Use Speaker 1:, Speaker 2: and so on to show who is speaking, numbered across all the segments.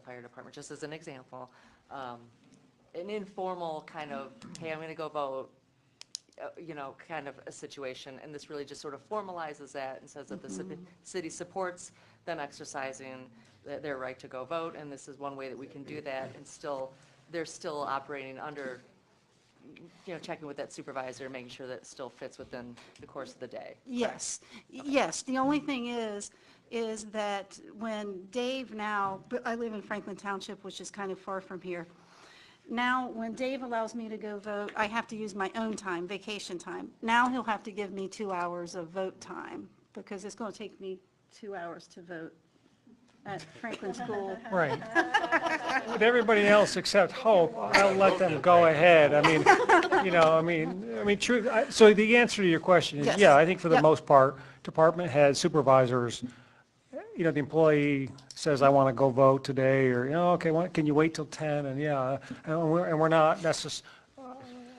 Speaker 1: fire department, just as an example, um, an informal kind of, hey, I'm going to go vote, uh, you know, kind of a situation, and this really just sort of formalizes that and says that the ci- city supports them exercising th- their right to go vote, and this is one way that we can do that, and still, they're still operating under, you know, checking with that supervisor, making sure that it still fits within the course of the day.
Speaker 2: Yes, yes. The only thing is, is that when Dave now, but I live in Franklin Township, which is kind of far from here. Now, when Dave allows me to go vote, I have to use my own time, vacation time. Now he'll have to give me two hours of vote time because it's going to take me two hours to vote at Franklin School.
Speaker 3: Right. With everybody else except Hope, I'll let them go ahead. I mean, you know, I mean, I mean, true, I- so the answer to your question is,
Speaker 2: Yes.
Speaker 3: yeah, I think for the
Speaker 2: Yep.
Speaker 3: most part, department heads, supervisors, you know, the employee says, I want to go vote today, or, you know, okay, why- can you wait till 10? And yeah, and we're, and we're not, that's just,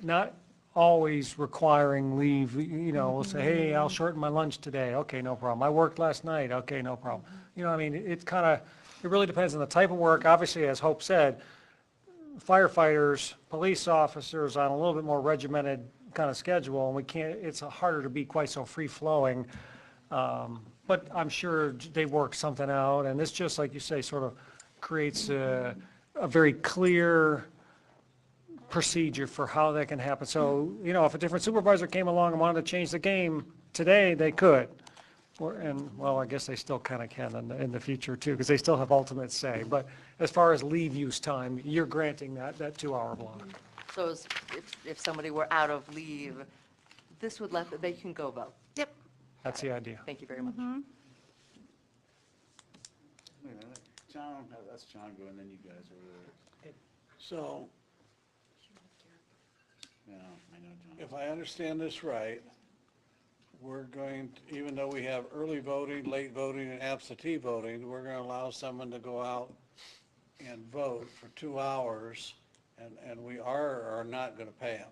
Speaker 3: not always requiring leave, you know, we'll say, hey, I'll shorten my lunch today, okay, no problem. I worked last night, okay, no problem. You know, I mean, it kind of, it really depends on the type of work. Obviously, as Hope said, firefighters, police officers on a little bit more regimented kind of schedule, and we can't, it's harder to be quite so free-flowing. Um, But I'm sure they work something out, and this, just like you say, sort of creates a, a very clear procedure for how that can happen. So, you know, if a different supervisor came along and wanted to change the game today, they could. Or, and, well, I guess they still kind of can in the, in the future too, because they still have ultimate say. But as far as leave use time, you're granting that, that two-hour block.
Speaker 1: So it's- if, if somebody were out of leave, this would let, they can go vote.
Speaker 2: Yep.
Speaker 3: That's the idea.
Speaker 1: Thank you very much.
Speaker 4: Wait a minute, John, no, that's John going, then you guys over there. So. Yeah, I know John.
Speaker 5: If I understand this right, we're going, to- even though we have early voting, late voting, and absentee voting, we're gonna allow someone to go out and vote for two hours, and, and we are or are not gonna pay them.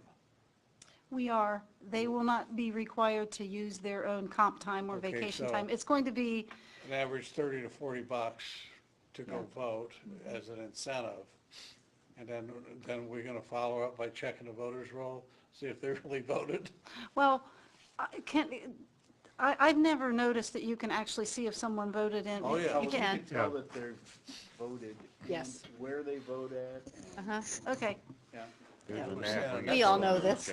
Speaker 2: We are. They will not be required to use their own comp time or
Speaker 5: Okay,
Speaker 2: vacation
Speaker 5: so-
Speaker 2: time. It's going to be,
Speaker 5: An average thirty to forty bucks to go vote as an incentive. And then, then we're gonna follow up by checking the voters' roll, see if they really voted.
Speaker 2: Well, I can't, I, I've never noticed that you can actually see if someone voted in.
Speaker 5: Oh, yeah.
Speaker 2: You
Speaker 4: You
Speaker 2: can,
Speaker 4: can tell that they're voted. and
Speaker 6: Yes.
Speaker 4: Where they vote at. and-
Speaker 6: Uh-huh.
Speaker 2: okay,
Speaker 4: Yeah.
Speaker 6: We all know this.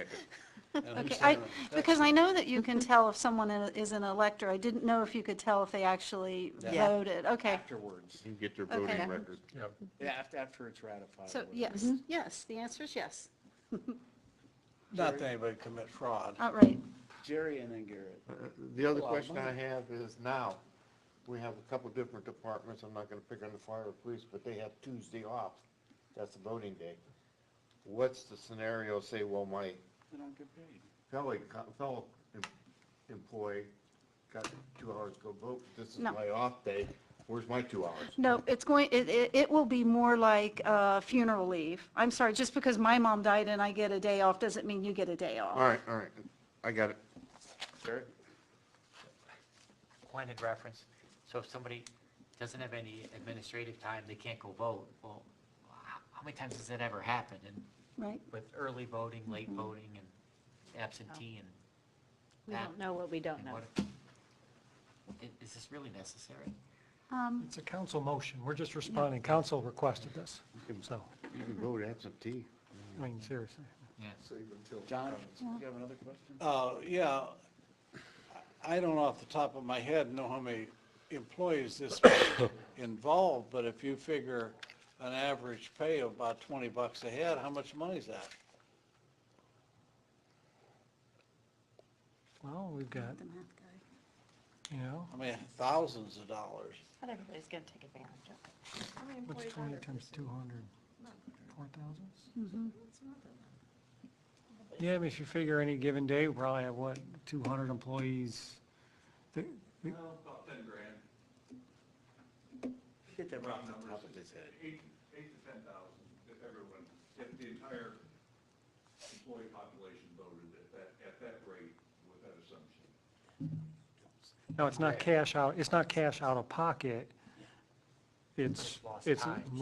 Speaker 2: okay. I, because I know that you can tell if someone i- is an elector. I didn't know if you could tell if they actually
Speaker 6: Yeah.
Speaker 2: voted. Okay.
Speaker 4: Afterwards.
Speaker 7: You get their
Speaker 2: Okay.
Speaker 7: voting record.
Speaker 4: Yeah, after, after it's ratified.
Speaker 2: So,
Speaker 4: or whatever.
Speaker 2: yes, yes, the answer is yes.
Speaker 5: Not that anybody commit fraud.
Speaker 2: All right.
Speaker 4: Jerry and then Garrett.
Speaker 7: Uh, The other
Speaker 5: lot of
Speaker 7: question I have is now, we have a couple different departments, I'm not gonna pick on the fire or police, but they have Tuesday off. That's the voting day. What's the scenario, say, well, my
Speaker 4: They don't get paid.
Speaker 7: fellow, co- fellow em- employee got two hours to go vote, this is
Speaker 2: No.
Speaker 7: my off day, where's my two hours?
Speaker 2: No, it's going, it, it, it will be more like uh, funeral leave. I'm sorry, just because my mom died and I get a day off doesn't mean you get a day off.
Speaker 7: All right, all right, I got it.
Speaker 4: Garrett?
Speaker 8: pointed reference, so if somebody doesn't have any administrative time, they can't go vote, well, how, how many times has that ever happened? And
Speaker 2: Right?
Speaker 8: with early voting, late voting, and absentee, and
Speaker 6: Mm-hmm. We don't know what we don't
Speaker 8: and
Speaker 6: know.
Speaker 8: what, i- is this really necessary?
Speaker 2: Um,
Speaker 3: It's a council motion. We're just responding. Council requested this. So,
Speaker 7: You can vote absentee.
Speaker 3: I mean, seriously.
Speaker 8: Yeah.
Speaker 4: John, do you have another question?
Speaker 5: Uh, yeah, I I don't off the top of my head know how many employees this involved, but if you figure an average pay of about twenty bucks a head, how much money is that?
Speaker 3: Well, we've got,
Speaker 2: the math guy.
Speaker 3: you know,
Speaker 5: I mean, thousands of dollars.
Speaker 6: Not everybody's going to take advantage of it.
Speaker 3: what's 20 times 200? 4,000?
Speaker 8: Mm-hmm.
Speaker 3: Yeah, I mean, if you figure any given day, we probably have, what, 200 employees? Th- th-
Speaker 5: About ten grand.
Speaker 4: Get that right off the top of his head.
Speaker 9: Eight, eight to ten thousand, if everyone, if the entire employee population voted at that, at that rate with that assumption.
Speaker 3: No, it's not cash out, it's not cash out of pocket. It's,
Speaker 8: Lost
Speaker 3: it's
Speaker 8: time.